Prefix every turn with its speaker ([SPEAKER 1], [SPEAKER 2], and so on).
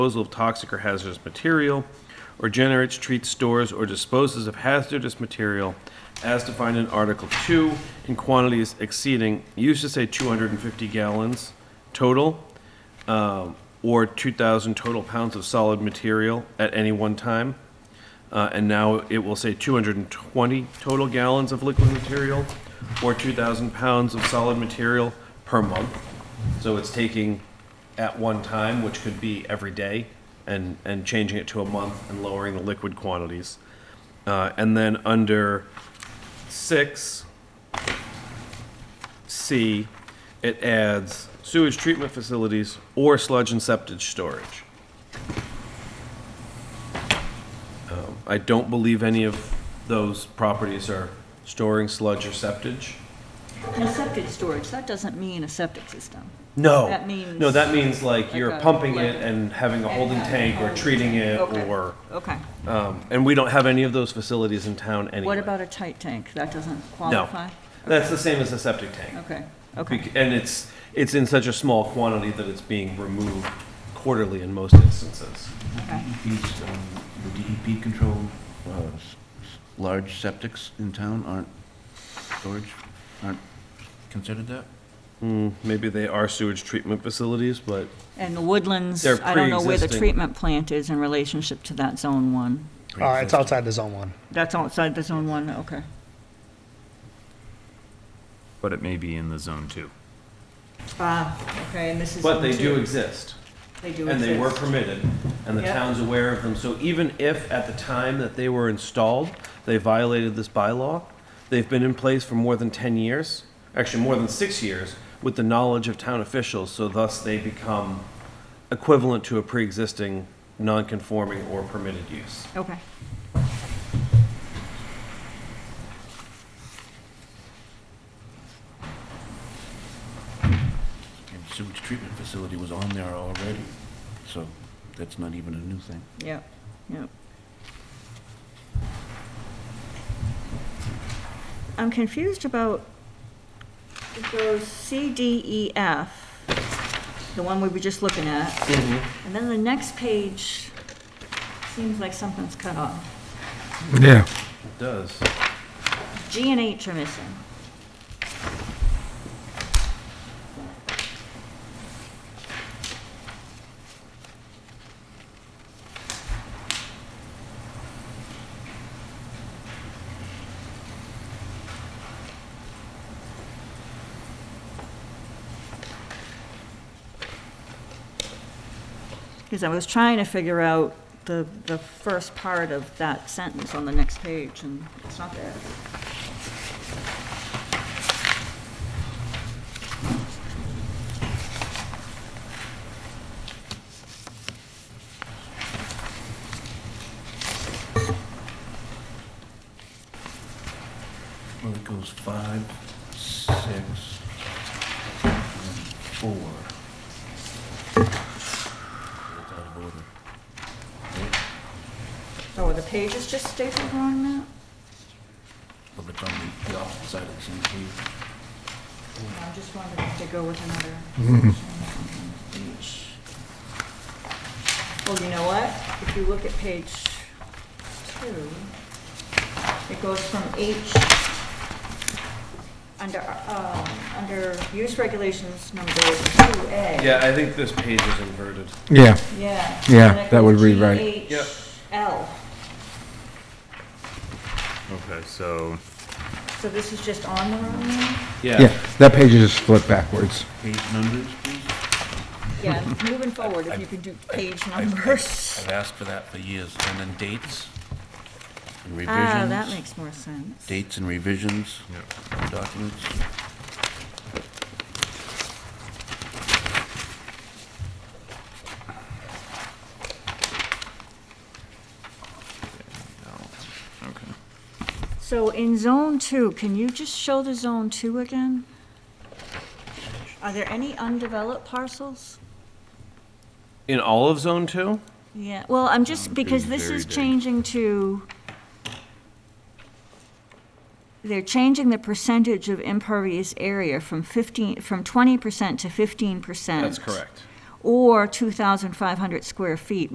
[SPEAKER 1] disposal of toxic or hazardous material, or generates, treats, stores, or disposes of hazardous material as defined in Article 2 in quantities exceeding, you used to say 250 gallons total, um, or 2,000 total pounds of solid material at any one time. Uh, And now it will say 220 total gallons of liquid material, or 2,000 pounds of solid material per month. So it's taking at one time, which could be every day, and, and changing it to a month and lowering the liquid quantities. Uh, And then under six, C, it adds sewage treatment facilities or sludge and septic storage. Um, I don't believe any of those properties are storing sludge or septic.
[SPEAKER 2] And a septic storage, that doesn't mean a septic system.
[SPEAKER 1] No.
[SPEAKER 2] That means-
[SPEAKER 1] No, that means like you're
[SPEAKER 2] Like a-
[SPEAKER 1] pumping
[SPEAKER 2] like-
[SPEAKER 1] it and having a holding tank or treating it
[SPEAKER 2] Okay.
[SPEAKER 1] or,
[SPEAKER 2] Okay.
[SPEAKER 1] um, and we don't have any of those facilities in town anyway.
[SPEAKER 2] What about a tight tank? That doesn't
[SPEAKER 1] No.
[SPEAKER 2] qualify?
[SPEAKER 1] That's the same as a septic tank.
[SPEAKER 2] Okay,
[SPEAKER 1] Bec-
[SPEAKER 2] okay.
[SPEAKER 1] And it's, it's in such a small quantity that it's being removed quarterly in most instances.
[SPEAKER 2] okay.
[SPEAKER 3] DEP's, um, the DEP controlled, uh, s- s- large septics in town aren't storage, aren't considered that?
[SPEAKER 1] Maybe they are sewage treatment facilities, but
[SPEAKER 2] And the woodlands,
[SPEAKER 1] They're
[SPEAKER 2] I don't know where the
[SPEAKER 1] pre-existing.
[SPEAKER 2] treatment plant is in relationship to that zone one.
[SPEAKER 4] Uh, it's outside the zone one.
[SPEAKER 2] That's outside the zone one, okay.
[SPEAKER 5] but it may be in the zone two.
[SPEAKER 2] Ah, okay, and this is.
[SPEAKER 1] but they do exist.
[SPEAKER 2] They do
[SPEAKER 1] And they were permitted, and the
[SPEAKER 2] Yeah.
[SPEAKER 1] town's aware of them. So even if at the time that they were installed, they violated this bylaw, they've been in place for more than 10 years, actually more than six years, with the knowledge of town officials, so thus they become equivalent to a pre-existing non-conforming or permitted use.
[SPEAKER 2] Okay.
[SPEAKER 3] And sewage treatment facility was on there already, so that's not even a new thing.
[SPEAKER 2] Yep, yep. I'm confused about those C, D, E, F, the one we were just looking at. And then the next page seems like something's cut off.
[SPEAKER 6] Yeah,
[SPEAKER 1] It does.
[SPEAKER 2] G and H are missing. Because I was trying to figure out the, the first part of that sentence on the next page, and it's not there.
[SPEAKER 3] Well, it goes five, six, and four. It's out of order. Right?
[SPEAKER 2] Oh, are the pages just stapled wrong now?
[SPEAKER 3] But it's on the- the opposite side of the same page.
[SPEAKER 2] I'm just wondering if they go with another. Well, you know what? If you look at page two, it goes from H, under, um, under use regulations number two A.
[SPEAKER 1] Yeah, I think this page is inverted.
[SPEAKER 6] yeah.
[SPEAKER 2] Yeah.
[SPEAKER 6] Yeah,
[SPEAKER 2] And it
[SPEAKER 6] that would
[SPEAKER 2] goes
[SPEAKER 6] read right.
[SPEAKER 1] Yep.
[SPEAKER 2] GHL.
[SPEAKER 5] Okay, so
[SPEAKER 2] So this is just on the wrong one?
[SPEAKER 6] Yeah, that page is just flipped backwards.
[SPEAKER 3] Page numbers, please?
[SPEAKER 2] Yeah, moving forward, if you could do page numbers.
[SPEAKER 3] I've asked for that for years, and then dates and
[SPEAKER 2] Ah, that
[SPEAKER 3] revisions.
[SPEAKER 2] makes more sense.
[SPEAKER 3] Dates and revisions, documents.
[SPEAKER 5] okay.
[SPEAKER 2] So in zone two, can you just show the zone two again? Are there any undeveloped parcels?
[SPEAKER 1] In all of Zone 2?
[SPEAKER 2] Yeah, well, I'm just, because this
[SPEAKER 5] very
[SPEAKER 2] is
[SPEAKER 5] big.
[SPEAKER 2] changing to, they're changing the percentage of impervious area from 15, from 20% to 15%.
[SPEAKER 1] That's correct.
[SPEAKER 2] or 2,500 square feet,